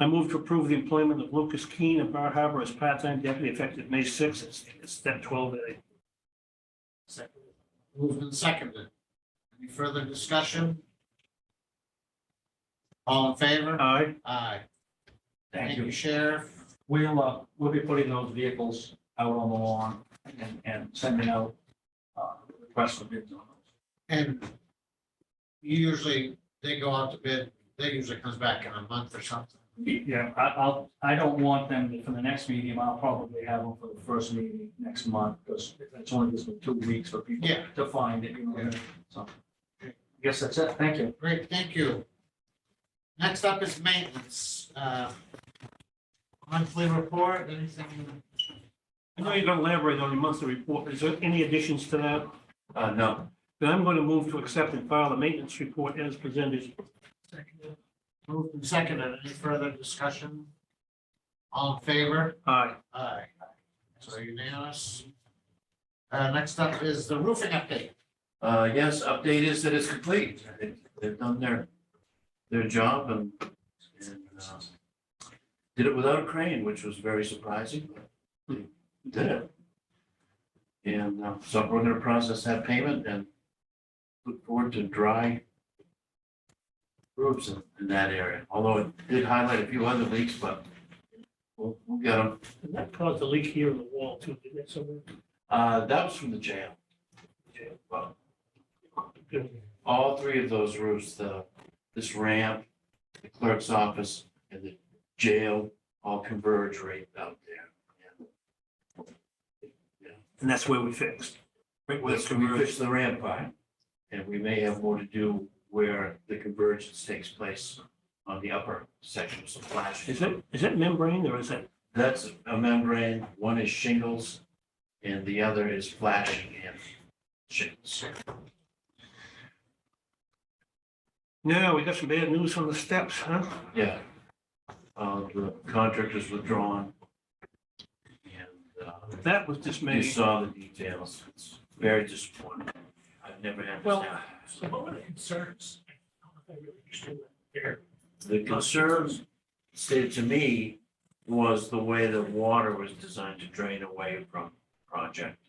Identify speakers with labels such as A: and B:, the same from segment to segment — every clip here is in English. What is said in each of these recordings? A: I move to approve the employment of Lucas Keane of Bar Harbor as part-time deputy effective May sixth, it's- it's step twelve A.
B: Second. Moved and seconded. Any further discussion? All in favor?
A: Aye,
B: Aye.
C: Thank you.
B: Sheriff.
C: We'll, uh, we'll be putting those vehicles out on the lawn and, and sending out, uh, requests for bids on those.
B: And usually they go out to bid, they usually comes back in a month or something.
C: Yeah, I, I'll, I don't want them to- for the next meeting. I'll probably have them for the first meeting next month, because it's only just been two weeks for people
B: Yeah.
C: to find it, you know, so. I guess that's it. Thank you.
B: Great, thank you. Next up is maintenance. Uh, Monthly report, anything?
A: I know you're gonna elaborate on your monthly report, is there any additions to that?
D: Uh, no,
A: Then I'm gonna move to accept and file the maintenance report as presented.
B: Moved and seconded. Any further discussion? All in favor?
A: Aye,
B: Aye. So unanimous. Uh, next up is the roofing update.
D: uh, yes, update is that it's complete. They- They've done their, their job and, and, uh, did it without a crane, which was very surprising, but they did it. And, uh, so we're gonna process that payment and look forward to dry roofs in, in that area, although it did highlight a few other leaks, but we'll, we'll get them.
A: and that caused a leak here in the wall too, didn't it, somewhere?
D: Uh, that was from the jail. Jail, well, all three of those roofs, the, this ramp, the clerk's office, and the jail, all converge right out there.
A: And that's where we fixed.
D: Right, well, so we fixed the ramp by, and we may have more to do where the convergence takes place on the upper sections of Flash.
A: Is it, is it membrane or is that
D: That's a membrane, one is shingles, and the other is flashing and shingles.
A: No, we got some bad news on the steps, huh?
D: Yeah. Uh, the contract is withdrawn. And, uh,
A: That was
D: You
A: dismaying.
D: saw the details. It's very disappointing. I've never had this
A: Well-
D: happen.
A: So what were the concerns? I don't know if I really understood that there.
D: The concern stated to me was the way the water was designed to drain away from the project.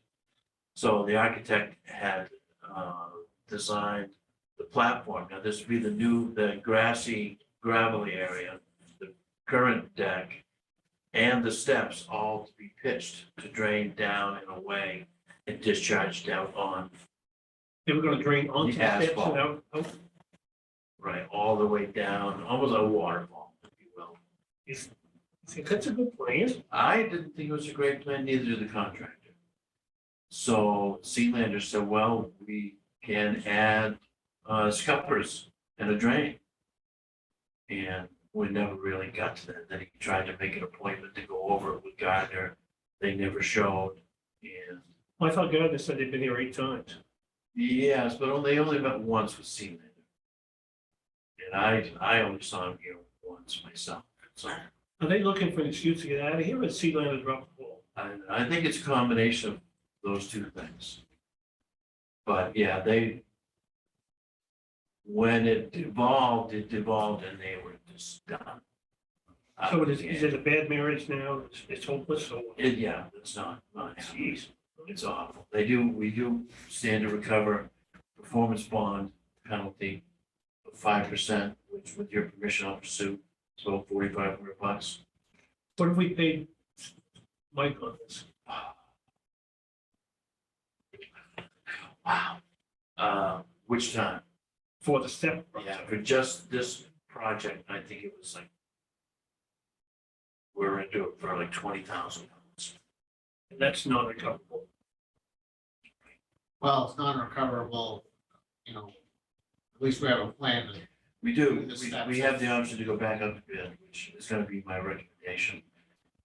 D: So the architect had uh, designed the platform. Now, this would be the new, the grassy gravelly area, the current deck, and the steps all to be pitched to drain down and away and discharged out on
A: They were gonna drain onto the
D: The
A: steps oh,
D: asphalt.
A: and out, out-
D: Right, all the way down, almost a waterfall, if you will.
A: I think that's a good plan.
D: I didn't think it was a great plan, neither did the contractor. So Sealander said, well, we can add uh scuppers and a drain. And we never really got to that. Then he tried to make an appointment to go over it with Gardner. They never showed. And
A: I thought Gardner said they'd been here eight times.
D: yes, but only, they only met once with Sealander. And I, I only saw him here once myself, so.
A: Are they looking for an excuse to get out of here or sea land dropped the ball?
D: I, I think it's a combination of those two things. But yeah, they, when it devolved, it devolved and they were just done. I-
A: So it is, is it a bad marriage now? It's- It's hopeless or what?
D: It- yeah, it's not, not, geez, it's awful. They do, we do stand to recover performance bond penalty of five percent, which with your permission, I'll pursue, so forty-five hundred bucks.
A: What have we paid Mike on this?
D: Wow. Uh, which time?
A: For the step?
D: Yeah, for just this project, I think it was like. We're into it for like twenty thousand dollars.
A: And That's not recoverable.
B: Well, it's non-recoverable, you know, at least we have a plan.
D: We do, we, we have the option to go back up to bid, which is gonna be my recommendation.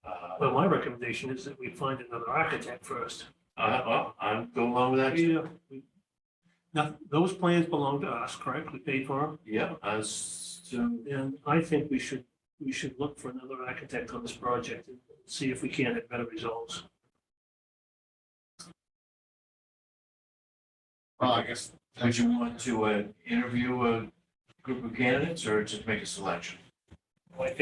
D: Uh,
A: Well, my recommendation is that we find another architect first.
D: I, I, I'll go along with that.
A: Yeah. we- Now, those plans belong to us, correct? We paid for them?
D: Yeah, I was, so,
A: And I think we should, we should look for another architect on this project and see if we can have better results.
B: Well, I guess.
D: would you want to, uh, interview a group of candidates or just make a selection?